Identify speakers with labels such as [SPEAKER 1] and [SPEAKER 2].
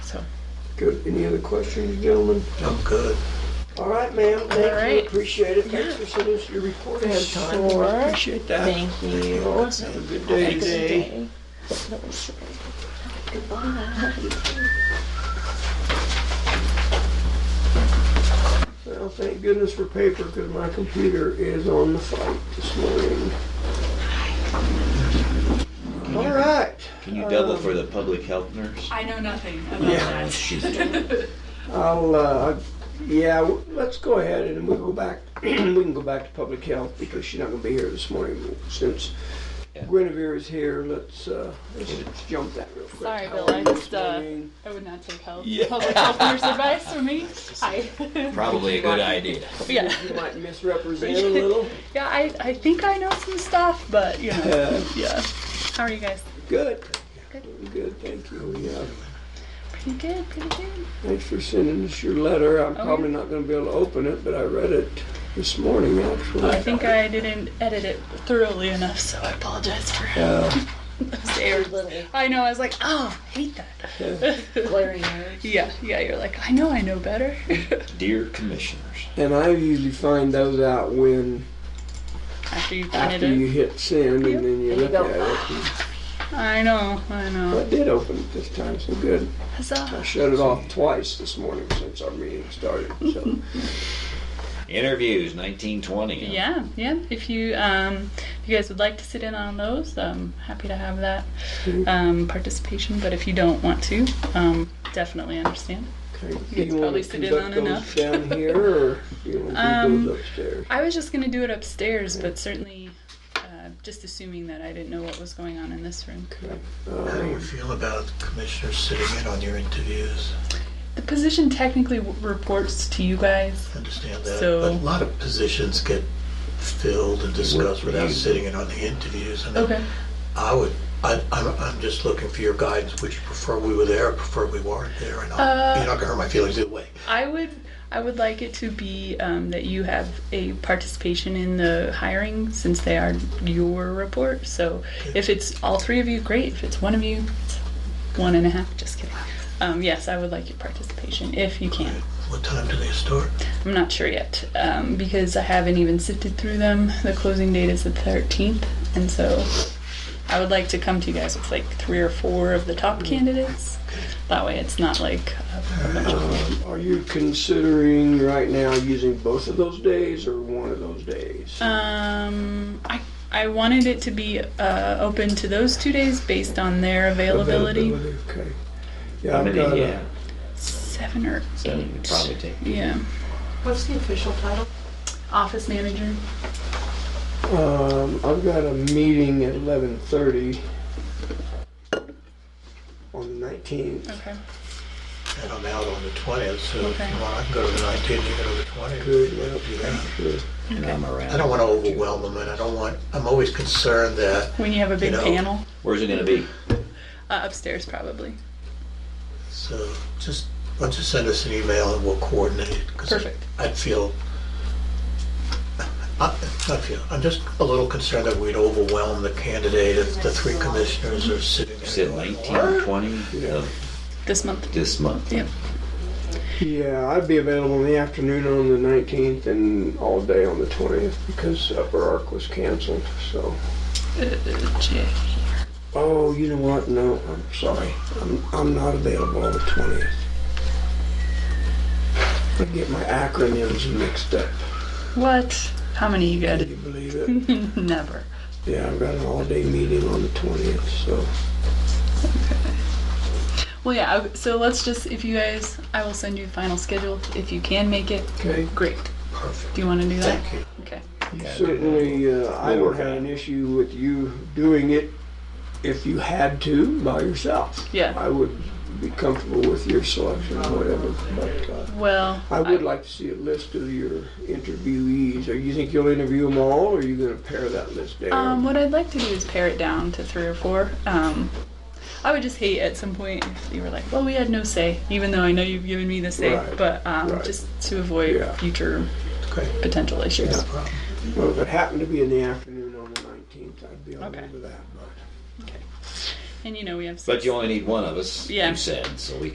[SPEAKER 1] So,
[SPEAKER 2] Good. Any other questions, gentlemen?
[SPEAKER 3] I'm good.
[SPEAKER 2] All right, ma'am.
[SPEAKER 1] All
[SPEAKER 2] Thank
[SPEAKER 1] right.
[SPEAKER 2] you. Appreciate it. Thanks for sending us your report ahead of time.
[SPEAKER 1] Sure.
[SPEAKER 2] I Appreciate that.
[SPEAKER 1] thank you.
[SPEAKER 2] All right, Have a good day
[SPEAKER 1] Thanks.
[SPEAKER 2] today. Well, thank goodness for paper because my computer is on the fight this morning. All right.
[SPEAKER 4] Can you double for the public health nurse?
[SPEAKER 5] I know nothing about
[SPEAKER 2] Yeah.
[SPEAKER 5] that.
[SPEAKER 2] I'll, uh, yeah, w- let's go ahead and we'll go back, we can go back to public health because she's not gonna be here this morning. Since
[SPEAKER 4] Yeah.
[SPEAKER 2] Guinevere is here, let's, uh, let's jump that real quick.
[SPEAKER 1] Sorry,
[SPEAKER 2] How
[SPEAKER 1] Bill,
[SPEAKER 2] are
[SPEAKER 1] I
[SPEAKER 2] you
[SPEAKER 1] just,
[SPEAKER 2] this
[SPEAKER 1] uh,
[SPEAKER 2] morning?
[SPEAKER 1] I would not take health.
[SPEAKER 4] Yeah.
[SPEAKER 1] Public health nurse advice for me. Hi.
[SPEAKER 4] Probably a good idea.
[SPEAKER 1] yeah.
[SPEAKER 2] You might misrepresent a little.
[SPEAKER 1] Yeah, I, I think I know some stuff, but you know.
[SPEAKER 2] Uh,
[SPEAKER 1] Yeah. How are you guys?
[SPEAKER 2] Good. Good, thank you. Yeah,
[SPEAKER 1] Pretty good, pretty good.
[SPEAKER 2] thanks for sending us your letter. I'm
[SPEAKER 1] Oh, yeah.
[SPEAKER 2] probably not gonna be able to open it, but I read it this morning,
[SPEAKER 1] I
[SPEAKER 2] actually.
[SPEAKER 1] think I didn't edit it thoroughly enough, so I apologize for
[SPEAKER 2] Uh,
[SPEAKER 1] those
[SPEAKER 6] Your
[SPEAKER 1] errors.
[SPEAKER 6] little
[SPEAKER 1] I know, I was like, oh, I hate that.
[SPEAKER 6] glaring eyes.
[SPEAKER 1] yeah, yeah, you're like, I know I know better.
[SPEAKER 4] Dear commissioners,
[SPEAKER 2] And I usually find those out when,
[SPEAKER 1] After you've done
[SPEAKER 2] after
[SPEAKER 1] it.
[SPEAKER 2] you hit send and then you
[SPEAKER 6] And you
[SPEAKER 2] look
[SPEAKER 6] go,
[SPEAKER 2] at it.
[SPEAKER 1] I know, I
[SPEAKER 2] I
[SPEAKER 1] know.
[SPEAKER 2] did open it this time, so good. I
[SPEAKER 1] Huzzah.
[SPEAKER 2] shut it off twice this morning since our meeting started, so.
[SPEAKER 4] interviews 1920. huh?
[SPEAKER 1] Yeah, yeah. If you um, if you guys would like to sit in on those, I'm happy to have that um, participation. But if you don't want to, um, definitely understand.
[SPEAKER 2] Okay,
[SPEAKER 1] You
[SPEAKER 2] Do you want
[SPEAKER 1] probably
[SPEAKER 2] to
[SPEAKER 1] sit in on
[SPEAKER 2] conduct those
[SPEAKER 1] enough.
[SPEAKER 2] down here or do you want to do
[SPEAKER 1] Um,
[SPEAKER 2] those upstairs?
[SPEAKER 1] I was just gonna do it upstairs, but certainly, uh, just assuming that I didn't know what was going on in this room.
[SPEAKER 2] Okay.
[SPEAKER 3] How do you
[SPEAKER 2] Um,
[SPEAKER 3] feel about commissioners sitting in on your interviews?
[SPEAKER 1] The position technically w- reports to you guys.
[SPEAKER 3] I Understand that,
[SPEAKER 1] So-
[SPEAKER 3] but a lot of positions get filled and discussed
[SPEAKER 4] for
[SPEAKER 3] without
[SPEAKER 4] you.
[SPEAKER 3] sitting in on the interviews. I mean,
[SPEAKER 1] Okay.
[SPEAKER 3] I would, I, I'm, I'm just looking for your guidance. Would you prefer we were there, or prefer we weren't there? And I'll,
[SPEAKER 1] Uh,
[SPEAKER 3] you're not gonna hurt my feelings either way.
[SPEAKER 1] I would I would like it to be um, that you have a participation in the hiring since they are your report. So if it's all three of you, great. If it's one of you, it's one and a half. Just kidding. Um, yes, I would like your participation if you can.
[SPEAKER 3] What time do they start?
[SPEAKER 1] I'm not sure yet um, because I haven't even sifted through them. The closing date is the 13th, and so I would like to come to you guys with like three or four of the top candidates. That way, it's not like a bunch of
[SPEAKER 2] um, Are you considering right now using both of those days or one of those days?
[SPEAKER 1] Uh, Um, I I wanted it to be uh, open to those two days based on their availability.
[SPEAKER 2] Okay. Yeah,
[SPEAKER 4] How
[SPEAKER 2] I've
[SPEAKER 4] many?
[SPEAKER 2] got
[SPEAKER 4] Yeah,
[SPEAKER 2] a,
[SPEAKER 1] Seven or
[SPEAKER 4] so
[SPEAKER 1] eight.
[SPEAKER 4] you probably take.
[SPEAKER 1] Yeah,
[SPEAKER 6] What's the official title?
[SPEAKER 1] office manager.
[SPEAKER 2] um, I've got a meeting at eleven thirty on the nineteenth.
[SPEAKER 1] Okay.
[SPEAKER 3] And I'm out on the twentieth, so if
[SPEAKER 1] Okay.
[SPEAKER 3] you want, I can go to the nineteenth, you can go to the twentieth.
[SPEAKER 2] Good, yeah, sure.
[SPEAKER 4] And I'm around.
[SPEAKER 3] I don't want to overwhelm them, and I don't want, I'm always concerned that,
[SPEAKER 1] When you have a big
[SPEAKER 3] You know.
[SPEAKER 1] panel
[SPEAKER 4] Where's it gonna be?
[SPEAKER 1] uh, upstairs, probably.
[SPEAKER 3] so just, why don't you send us an email and we'll coordinate. 'cause
[SPEAKER 1] Perfect.
[SPEAKER 3] I'd feel, I, I feel, I'm just a little concerned that we'd overwhelm the candidate if the three commissioners are sitting. there
[SPEAKER 4] Is it
[SPEAKER 3] going,
[SPEAKER 4] 1920 of
[SPEAKER 1] This month.
[SPEAKER 4] this month?
[SPEAKER 1] Yep.
[SPEAKER 2] Yeah, I'd be available in the afternoon on the 19th and all day on the 20th because Upper Ark was canceled. So,
[SPEAKER 6] Uh,
[SPEAKER 2] oh, you know what? No, I'm sorry. I'm, I'm not available on the 20th. I get my acronyms mixed up.
[SPEAKER 1] What? How many you got?
[SPEAKER 2] Can you believe it?
[SPEAKER 1] Never.
[SPEAKER 2] Yeah, I've got an all-day meeting on the 20th. So,
[SPEAKER 1] Well, yeah. I- So let's just, if you guys, I will send you the final schedule. If you can make it,
[SPEAKER 2] okay.
[SPEAKER 1] great.
[SPEAKER 3] Perfect,
[SPEAKER 1] Do you want to do that?
[SPEAKER 3] thank you.
[SPEAKER 1] Okay.
[SPEAKER 2] Certainly, uh, I
[SPEAKER 4] We'll
[SPEAKER 2] don't
[SPEAKER 4] work
[SPEAKER 2] have
[SPEAKER 4] on it.
[SPEAKER 2] an issue with you doing it if you had to by yourself.
[SPEAKER 1] Yeah.
[SPEAKER 2] I would be comfortable with your selection or whatever, but uh,
[SPEAKER 1] Well,
[SPEAKER 2] I would like to see a list of your interviewees. Are you think you'll interview them all, or are you gonna pare that list
[SPEAKER 1] Um,
[SPEAKER 2] down?
[SPEAKER 1] what I'd like to do is pare it down to three or four. Um, I would just hate at some point if you were like, well, we had no say, even though I know you've given me the say,
[SPEAKER 2] Right,
[SPEAKER 1] but um,
[SPEAKER 2] right.
[SPEAKER 1] just to avoid
[SPEAKER 2] Yeah.
[SPEAKER 1] future
[SPEAKER 3] Okay.
[SPEAKER 1] potential issues.
[SPEAKER 3] No problem.
[SPEAKER 2] Well, if it happened to be in the afternoon on the nineteenth, I'd be all
[SPEAKER 1] Okay.
[SPEAKER 2] over that, but.
[SPEAKER 1] And you know, we have six.
[SPEAKER 4] But you only need one of us,
[SPEAKER 1] Yeah.
[SPEAKER 4] you said, so we